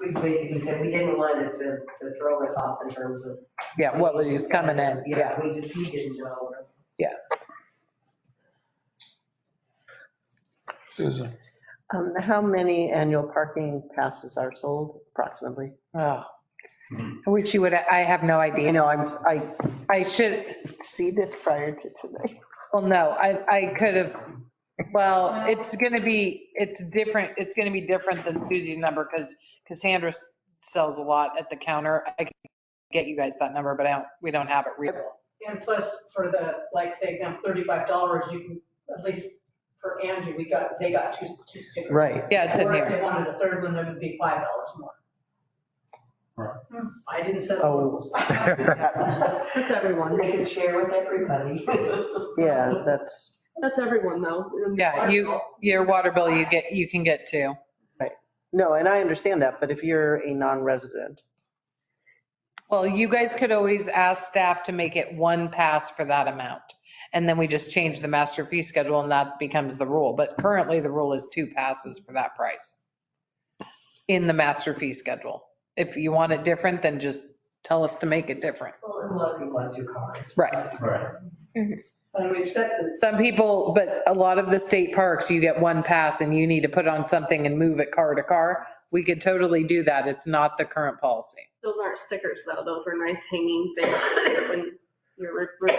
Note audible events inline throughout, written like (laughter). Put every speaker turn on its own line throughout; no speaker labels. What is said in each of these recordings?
we basically said we didn't want it to, to throw us off in terms of.
Yeah, what was coming in, yeah.
We just, he didn't know.
Susan,
Um, how many annual parking passes are sold approximately?
Oh. I wish you would, I have no
You
idea.
know, I'm, I
I should,
see this prior to today. (laughs)
well, no, I, I could have, well, it's gonna be, it's different, it's gonna be different than Susie's number because Cassandra s- sells a lot at the counter. I could get you guys that number, but I don't, we don't have it real.
And plus for the, like, say, example, thirty-five dollars, you can, at least for Andrew, we got, they got two, two stickers.
Right.
Yeah, it's in
Or if
here.
they wanted a third one, that would be five dollars more.
Right.
Hmm, I didn't set the
(laughs)
Oh.
rules.
That's everyone.
They could share with everybody. (laughs)
Yeah, that's,
That's everyone though.
Yeah, you, your water bill, you get, you can get two.
no, and I understand that, but if you're a non-resident,
Well, you guys could always ask staff to make it one pass for that amount. And then we just change the master fee schedule and that becomes the rule. But currently the rule is two passes for that price in the master fee schedule. If you want it different, then just tell us to make it different.
Well, and a lot of people have two cars.
Right.
right.
And we've set the,
Some people, but a lot of the state parks, you get one pass and you need to put on something and move it car to car. We could totally do that. It's not the current policy.
Those aren't stickers though. Those are nice hanging things when you're. re- re-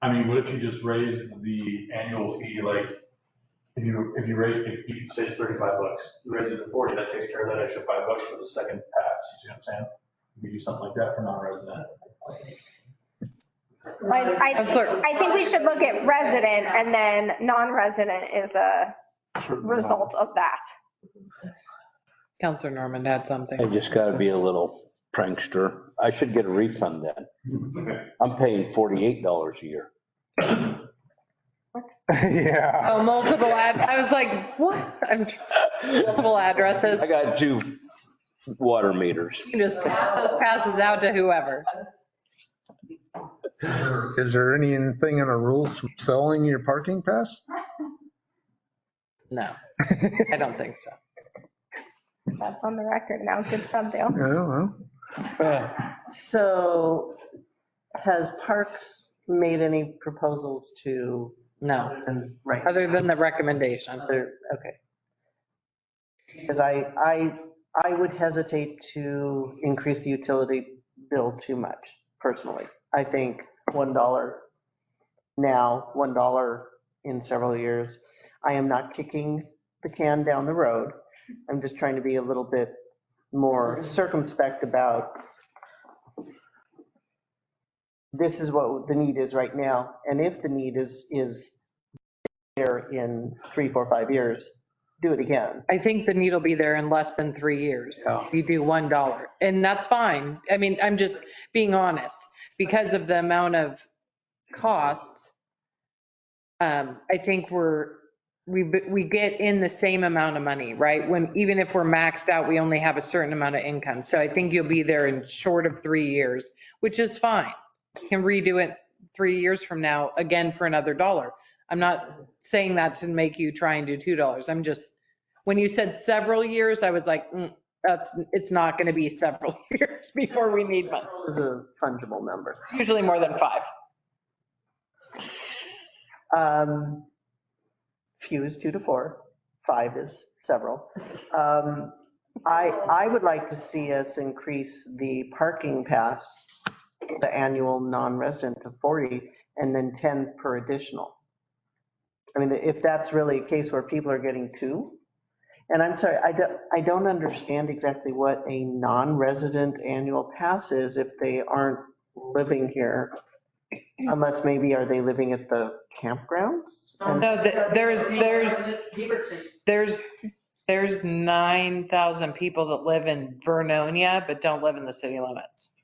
I mean, what if you just raise the annual fee, like, if you, if you rate, if you say it's thirty-five bucks, you raise it to forty, that takes care of that extra five bucks for the second pass, you see what I'm saying? We do something like that for non-resident.
I, I,
Counselor,
I think we should look at resident and then non-resident is a result of that.
Counselor Norman had something.
I just gotta be a little prankster. I should get a refund then. I'm paying $48 a year. (laughs)
Yeah.
Oh, multiple ad, I was like, what? I'm, tr- multiple addresses.
I got two water meters.
(laughs) You can just pass those passes out to whoever.
Is there anything in our rules selling your parking pass?
No, I don't think so.
That's on the record now. Good stuff, Dale.
I don't know.
so has Parks made any proposals to,
No,
right,
other than the recommendation.
other, okay. Because I, I, I would hesitate to increase the utility bill too much personally. I think $1 now, $1 in several years. I am not kicking the can down the road. I'm just trying to be a little bit more circumspect about this is what the need is right now. And if the need is, is there in three, four, five years, do it again.
I think the need will be there in less than three years. So you do $1 and that's fine. I mean, I'm just being honest because of the amount of costs. Um, I think we're, we, we get in the same amount of money, right? When, even if we're maxed out, we only have a certain amount of income. So I think you'll be there in short of three years, which is fine. You Can redo it three years from now, again for another dollar. I'm not saying that to make you try and do $2. I'm just, when you said several years, I was like, mm, that's, it's not going to be several (laughs) years before we need money.
It's a fungible number.
It's usually more than five.
Um, Few is two to four, five is several. Um, I, I would like to see us increase the parking pass, the annual non-resident to 40, and then 10 per additional. I mean, if that's really a case where people are getting two, and I'm sorry, I don't, I don't understand exactly what a non-resident annual pass is if they aren't living here. Unless maybe are they living at the campgrounds?
Um,
And-
No, th- there's, there's,
Beaverton.
there's, there's 9,000 people that live in Vernonia but don't live in the city limits.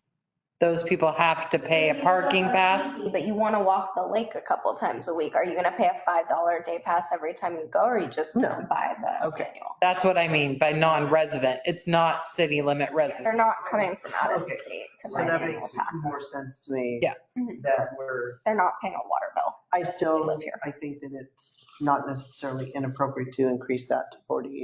Those people have to pay a parking pass.
But you want to walk the lake a couple times a week. Are you going to pay a $5 a day pass every time you go or are you just going to buy the
Okay.
annual?
That's what I mean by non-resident. It's not city limit
They're
resident.
not coming from out of
Okay.
state to
So
buy
that
an annual
makes
pass.
more sense to me.
Yeah.
That we're,
They're not paying a water bill.
I
They
still,
live here.
I think that it's not necessarily inappropriate to increase that to 40